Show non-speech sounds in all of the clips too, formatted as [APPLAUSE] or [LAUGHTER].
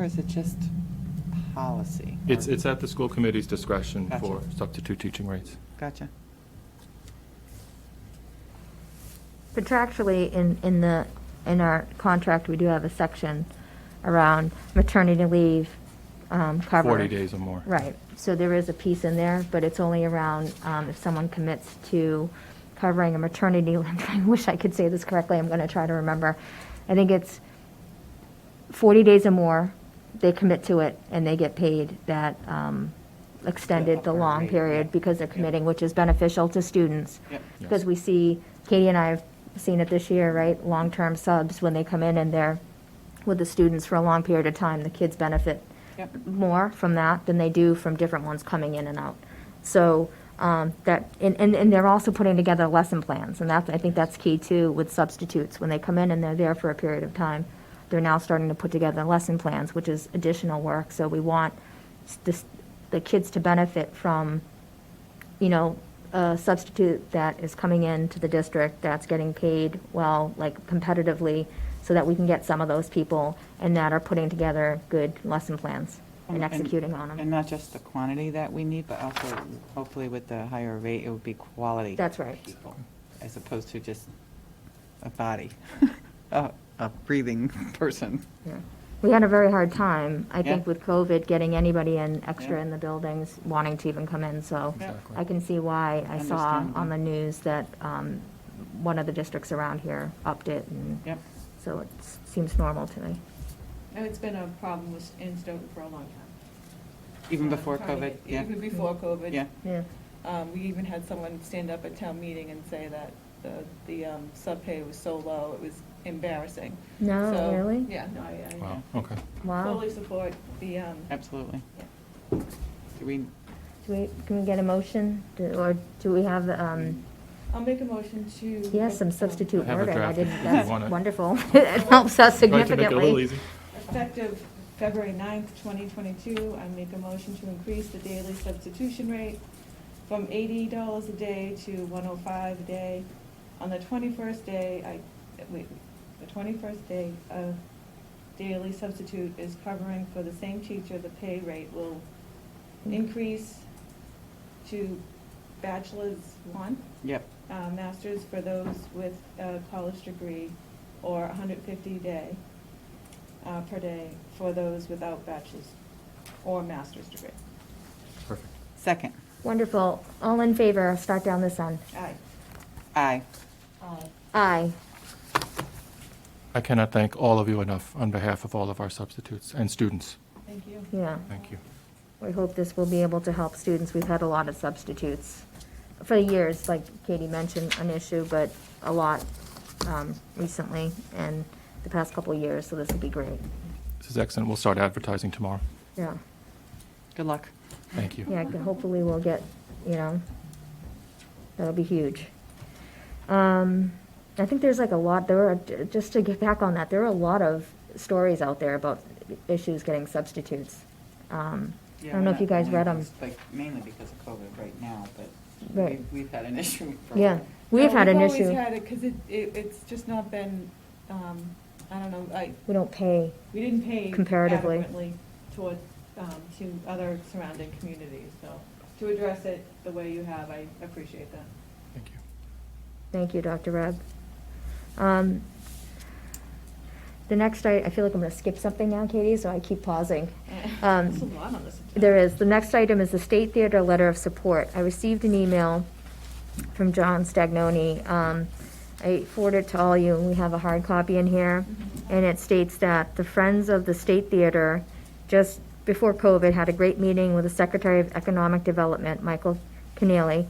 Or is it just policy? It's, it's at the school committee's discretion Gotcha. for substitute teaching rates. Gotcha. Contractually, in, in the, in our contract, we do have a section around maternity leave um, coverage. 40 days or more. Right, so there is a piece in there, but it's only around um, if someone commits to covering a maternity, [LAUGHS] I wish I could say this correctly, I'm going to try to remember. I think it's 40 days or more, they commit to it, and they get paid that um, extended, the upper long rate, yeah. period, because they're committing, which is beneficial to students. Yep. Because we see, Katie and I have seen it this year, right, long-term subs, when they come in and they're with the students for a long period of time, the kids benefit Yep. more from that than they do from different ones coming in and out. So um, that, and, and and they're also putting together lesson plans, and that's, I think that's key too with substitutes. When they come in and they're there for a period of time, they're now starting to put together lesson plans, which is additional work. So we want s- this- the kids to benefit from, you know, a substitute that is coming into the district that's getting paid well, like competitively, so that we can get some of those people and that are putting together good lesson plans and executing on And them. not just the quantity that we need, but also hopefully with the higher rate, it would be quality. That's right. people, As opposed to just a [LAUGHS] body, a, a breathing [LAUGHS] person. Yeah. We had a very hard time, I think, Yeah. with COVID, getting anybody in extra Yeah. in the buildings, wanting to even come in, so Yeah. Exactly. I can see why I saw Understandable. on the news that um, one of the districts around here upped it, and Yep. so it s- seems normal to me. And it's been a problem with, in Stoughton for a long time. Even Um, before trying to COVID, get- yeah. Mm-hmm. Even before COVID. Yeah. Yeah. Um, we even had someone stand up at town meeting and say that the, the, um, subpay was so low, it was embarrassing. No, So, really? Yeah, no, I, I. Wow, Yeah. okay. Wow. Fully support the, um. Absolutely. yeah. Do we, Do we, can we get a motion, Do- or do we have, um, I'll make a motion to. yes, some um, substitute I have a wording, I draft if didn't, you that's want it. wonderful, [LAUGHS] it helps Tried to us significantly. make it a little easy. Effective February 9th, 2022, I make a motion to increase the daily substitution rate from $80 a day to $105 a day. On the 21st day, I, wait, the 21st day of daily substitute is covering for the same teacher, the pay rate will increase to bachelor's one, yep, uh, masters for those with a college degree, or 150 day, uh, per day for those without bachelor's or master's degree. Perfect. second, Wonderful, all in favor, start down this end. Aye. aye. Uh, Aye, I cannot thank all of you enough on behalf of all of our substitutes and students. Thank you. yeah. Thank you. We hope this will be able to help students. We've had a lot of substitutes for years, like Katie mentioned, an issue, but a lot um, recently and the past couple of years, so this will be great. This is excellent. We'll start advertising tomorrow. Yeah, Good luck. Thank you. yeah, hopefully we'll get, you know, that'll be huge. Um, I think there's like a lot, there are, just to get back on that, there are a lot of stories out there about issues getting substitutes. Um, I Yeah, don't know we're if you not guys only read them. because- Like mainly because of COVID right now, but Right. we've, we've had an [LAUGHS] issue for. Yeah, we've No, had an Uh, We've issue. always had it, because it, it, it's just not been, um, I don't know, I, We don't pay. we didn't pay Comparatively. adequately toward, um, to other surrounding communities, so to address it the way you have, I appreciate that. Thank you. Thank you, Dr. Reb. Um, The next, I, I feel like I'm going to skip something now, Katie, so I keep pausing. [LAUGHS] Um, There's a lot on this. There is, the next item is the State Theater Letter of Support. I received an email from John Stagnoni. Um, I forwarded it to all you, and we have a hard copy in here. And it states that the Friends of the State Theater, just before COVID, had a great meeting with the Secretary of Economic Development, Michael Keneally.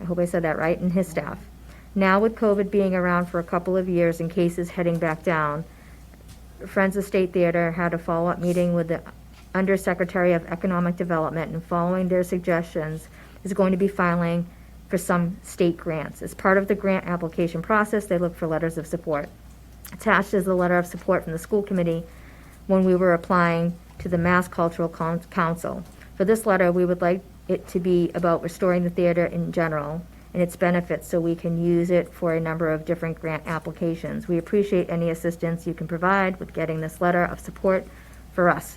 I hope I said that right, and his staff. Now with COVID being around for a couple of years and cases heading back down, Friends of State Theater had a follow-up meeting with the Undersecretary of Economic Development, and following their suggestions, is going to be filing for some state grants. As part of the grant application process, they look for letters of support. Attached is the letter of support from the school committee when we were applying to the Mass Cultural Con- Council. For this letter, we would like it to be about restoring the theater in general and its benefits so we can use it for a number of different grant applications. We appreciate any assistance you can provide with getting this letter of support for us